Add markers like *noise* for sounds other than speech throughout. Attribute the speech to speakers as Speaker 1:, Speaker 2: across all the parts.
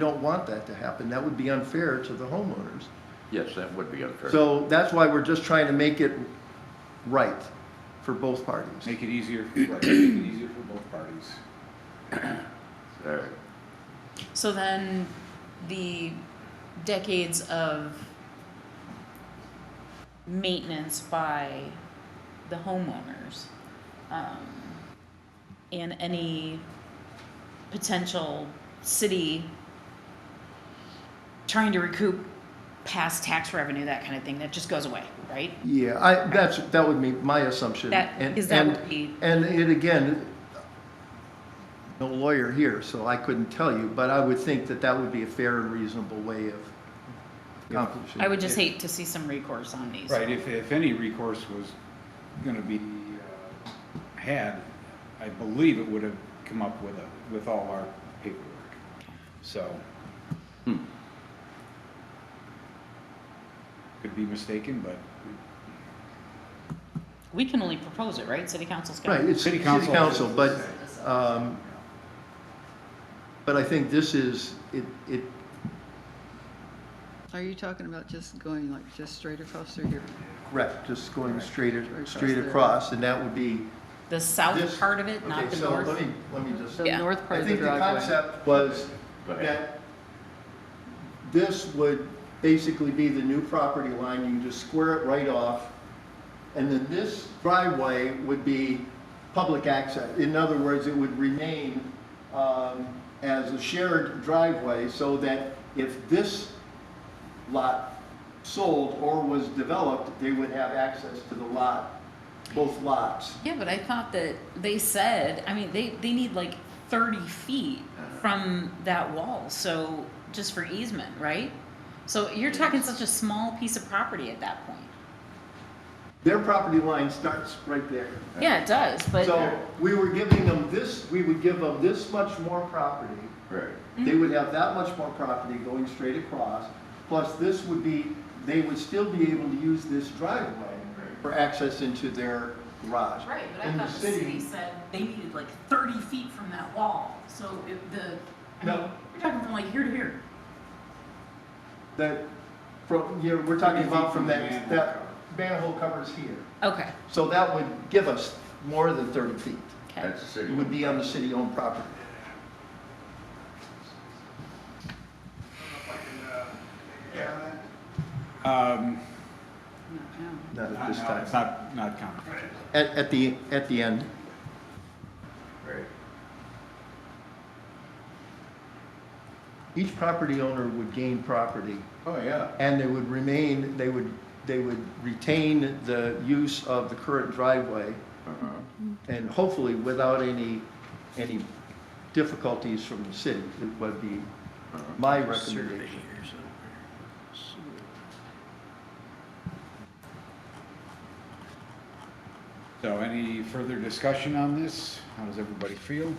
Speaker 1: don't want that to happen. That would be unfair to the homeowners.
Speaker 2: Yes, that would be unfair.
Speaker 1: So that's why we're just trying to make it right for both parties.
Speaker 3: Make it easier, for- right, make it easier for both parties.
Speaker 2: All right.
Speaker 4: So then the decades of maintenance by the homeowners um, and any potential city trying to recoup past tax revenue, that kind of thing, that just goes away, right?
Speaker 1: Yeah, I, that's, that would be my assumption.
Speaker 4: That-
Speaker 1: And-
Speaker 4: is that
Speaker 1: and-
Speaker 4: would be-
Speaker 1: And it again, no lawyer here, so I couldn't tell you, but I would think that that would be a fair and reasonable way of accomplishing.
Speaker 4: I would just
Speaker 3: Yeah.
Speaker 4: hate to see some recourse on these.
Speaker 3: Right, if, if any recourse was gonna be, uh, had, I believe it would have come up with a, with all our paperwork. So. Could be mistaken, but
Speaker 4: We can only propose it, right? City council's got.
Speaker 1: Right, it's
Speaker 3: City
Speaker 1: city
Speaker 3: council.
Speaker 1: council, but, um, but I think this is, it, it,
Speaker 5: Are you talking about just going like just straight across through here?
Speaker 1: correct, just going straight,
Speaker 5: Right across
Speaker 1: straight
Speaker 5: there.
Speaker 1: across, and that would be
Speaker 4: The south
Speaker 1: This-
Speaker 4: part of it, not
Speaker 1: Okay,
Speaker 4: the
Speaker 1: so
Speaker 4: north.
Speaker 1: let me, let me just,
Speaker 5: The
Speaker 4: Yeah.
Speaker 5: north part
Speaker 1: I
Speaker 5: of the
Speaker 1: think the
Speaker 5: driveway?
Speaker 1: concept was
Speaker 2: Go ahead.
Speaker 1: that this would basically be the new property line, you just square it right off, and then this driveway would be public access. In other words, it would remain um, as a shared driveway, so that if this lot sold or was developed, they would have access to the lot, both lots.
Speaker 4: Yeah, but I thought that they said, I mean, they, they need like thirty feet from that wall, so, just for easement, right? So you're talking such a small piece of property at that point.
Speaker 1: Their property line starts right there.
Speaker 4: Yeah, it does, but,
Speaker 1: So we were giving them this, we would give them this much more property.
Speaker 2: Right.
Speaker 1: They
Speaker 4: Mm-hmm.
Speaker 1: would have that much more property going straight across. Plus this would be, they would still be able to use this driveway for access into their garage.
Speaker 4: right, but I
Speaker 1: And
Speaker 4: thought the city said they needed like thirty feet from that wall, so if the, I mean,
Speaker 1: No.
Speaker 4: we're talking from like here to here.
Speaker 1: That, from, you know, we're talking about from that,
Speaker 3: Manhole
Speaker 1: that manhole covers here.
Speaker 4: Okay,
Speaker 1: So that would give us more than thirty feet.
Speaker 4: okay,
Speaker 2: That's the
Speaker 1: It
Speaker 2: city.
Speaker 1: would be on the city-owned property.
Speaker 3: Um,
Speaker 1: Not at
Speaker 3: not
Speaker 1: this
Speaker 3: now, it's
Speaker 1: time.
Speaker 3: not, not complicated.
Speaker 1: At, at the, at the end.
Speaker 2: Right.
Speaker 1: Each property owner would gain property,
Speaker 2: Oh, yeah.
Speaker 1: and they would remain, they would, they would retain the use of the current driveway,
Speaker 2: Uh-huh.
Speaker 1: and hopefully without any, any difficulties from the city, it would be my recommendation.
Speaker 3: So any further discussion on this? How does everybody feel?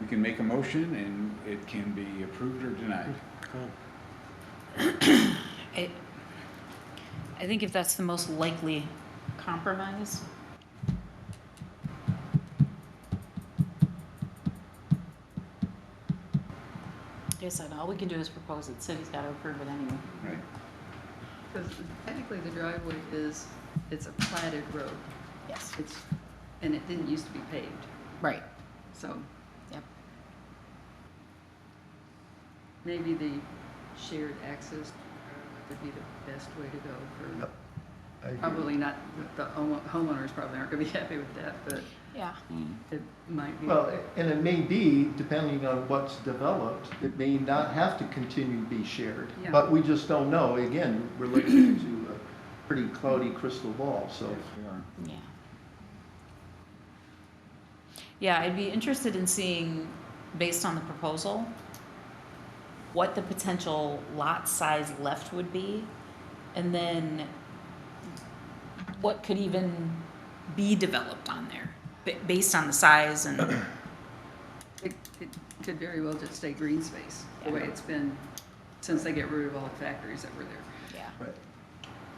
Speaker 3: We can make a motion and it can be approved or denied.
Speaker 4: I, I think if that's the most likely compromise, Like I said, all we can do is propose it, city's gotta approve it anyway.
Speaker 3: Right.
Speaker 5: Because technically the driveway is, it's a platted road.
Speaker 4: Yes.
Speaker 5: It's, and it didn't used to be paved,
Speaker 4: Right,
Speaker 5: so
Speaker 4: yep.
Speaker 5: maybe the shared access would be the best way to go for,
Speaker 1: Yep. I agree.
Speaker 5: probably not, the homo- homeowners probably aren't gonna be *laughs* happy with that, but
Speaker 4: Yeah.
Speaker 5: it might be.
Speaker 1: Well, and it may be, depending on what's developed, it may not have to continue to be shared.
Speaker 5: Yeah.
Speaker 1: But we just don't know. Again, we're looking into a pretty cloudy crystal ball, so.
Speaker 4: Yeah. Yeah, I'd be interested in seeing, based on the proposal, what the potential lot size left would be, and then what could even be developed on there, ba- based on the size and,
Speaker 5: It, it could very well just stay green space, the way
Speaker 4: Yeah.
Speaker 5: it's been since they get rid of all the factories that were there.
Speaker 4: yeah.
Speaker 1: Right.